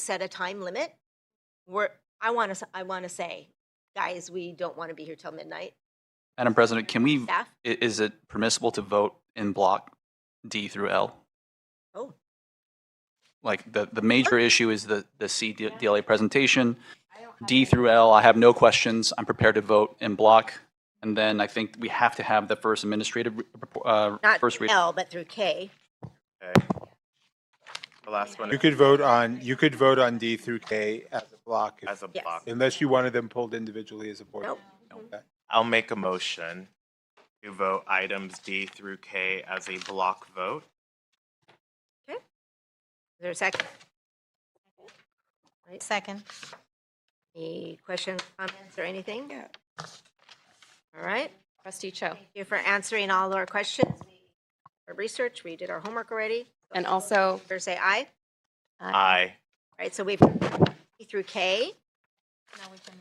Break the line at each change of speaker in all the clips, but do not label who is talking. set a time limit. We're, I want to, I want to say, guys, we don't want to be here till midnight.
Madam President, can we, i-
Staff?
is it permissible to vote in block D through L?
Oh,
Like, the, the major issue is the, the C D- DLA presentation. D through L, I have no questions. I'm prepared to vote in block. And then I think we have to have the first administrative, re- uh,
not
first read.
L, but through K.
Okay. The last one
You could vote on, you could vote on D through K as a block,
as a
Yes.
block.
unless you wanted them pulled individually as a board.
Nope.
I'll make a motion to vote items D through K as a block vote.
Is there a second?
Second.
Any questions, comments, or anything? All right.
Trustee Cho.
Thank you for answering all our questions. Our research, we did our homework already.
And also,
Or say aye.
Aye.
All right, so we've E through K.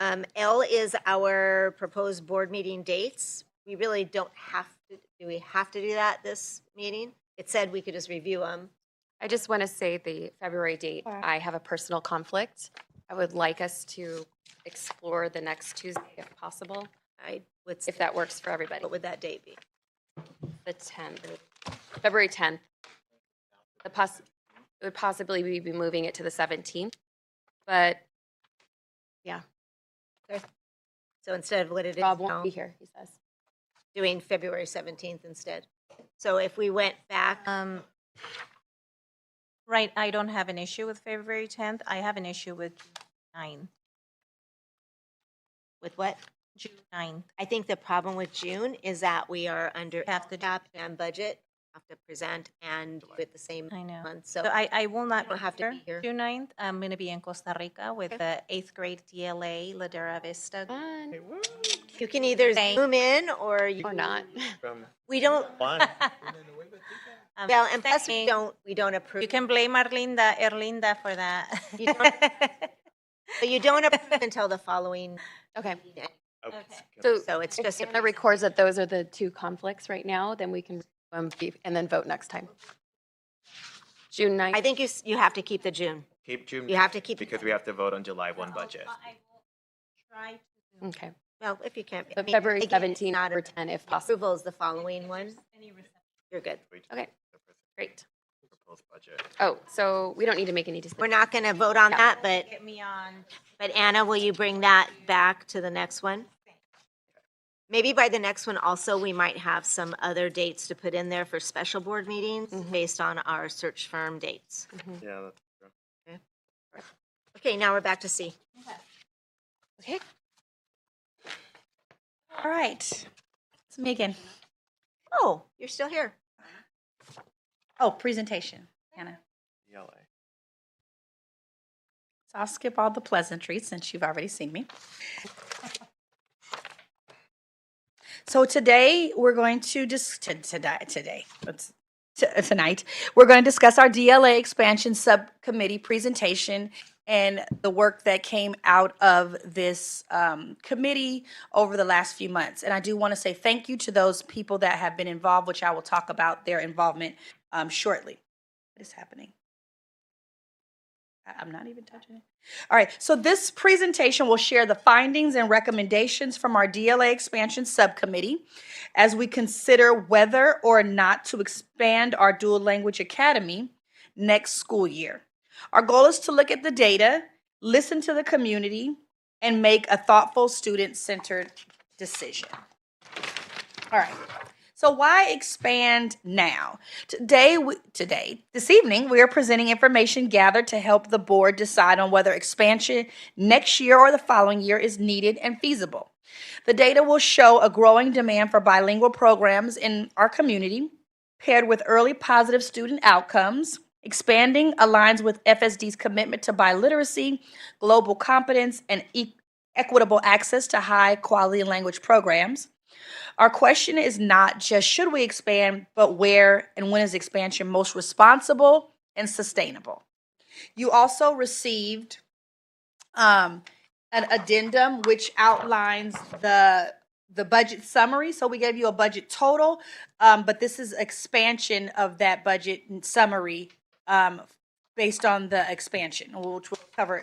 Um, L is our proposed board meeting dates. We really don't have to, do we have to do that this meeting? It said we could just review them.
I just want to say the February date, I have a personal conflict. I would like us to explore the next Tuesday if possible,
I would, say-
if that works for everybody.
what would that date be?
The 10th, February 10th. The poss, it would possibly be be moving it to the 17th, but
So instead of what it is
Rob won't
now,
be here, he says.
doing February 17th instead. So if we went back,
Um, Right, I don't have an issue with February 10th. I have an issue with June 9,
with what?
June 9.
I think the problem with June is that we are under
Have to do-
cap and budget, have to present and with the same
I know.
month.
So
So
I, I will not
don't have to be here.
June 9th. I'm going to be in Costa Rica with
Okay. Mm.
the eighth grade DLA Ladera Vista.
Fun
you can either
Thank-
zoom in or you,
or not.
we don't,
I'm
well, and plus we
saying-
don't, we don't approve.
Um, You can blame Arlinda, Erlinda for that.
You But you don't approve until the following,
Okay,
Okay.
so
so it's
if
just. a
Anna records that those are the two conflicts right now, then we can, um, be- and then vote next time. June 9th.
I think you, s- you have to keep the June.
Keep June.
You have to keep-
Because we have to vote on July 1 budget.
Okay,
Well, if you can't. I
but
mean,
February
again, it's
17th
Not
or
a-
10 if possible.
approval is the following one. You're good.
Okay, great.
Proposed budget.
Oh, so we don't need to make any
We're
decisions.
not going to vote on
Yeah.
that, but,
Get me on.
but Anna, will you bring that back to the next one? Maybe by the next one also, we might have some other dates to put in there for special board meetings based on our search firm dates.
Yeah, that's true.
Okay, now we're back to C.
Okay,
All right. It's Megan.
Oh, you're still here.
Oh, presentation, Hannah.
ELA.
So I'll skip all the pleasantries since you've already seen me. So today, we're going to just, today, today, let's- t- tonight, we're going to discuss our DLA expansion subcommittee presentation and the work that came out of this um, committee over the last few months. And I do want to say thank you to those people that have been involved, which I will talk about their involvement um, shortly. What is happening? I- I'm not even touching it. All right, so this presentation will share the findings and recommendations from our DLA expansion subcommittee as we consider whether or not to expand our dual language academy next school year. Our goal is to look at the data, listen to the community, and make a thoughtful student centered decision. All right. So why expand now? Today, we, today, this evening, we are presenting information gathered to help the board decide on whether expansion next year or the following year is needed and feasible. The data will show a growing demand for bilingual programs in our community, paired with early positive student outcomes. Expanding aligns with FSD's commitment to biliteracy, global competence, and e- equitable access to high quality language programs. Our question is not just should we expand, but where and when is expansion most responsible and sustainable? You also received um, an addendum which outlines the the budget summary. So we gave you a budget total, um, but this is expansion of that budget summary um, based on the expansion, which we'll cover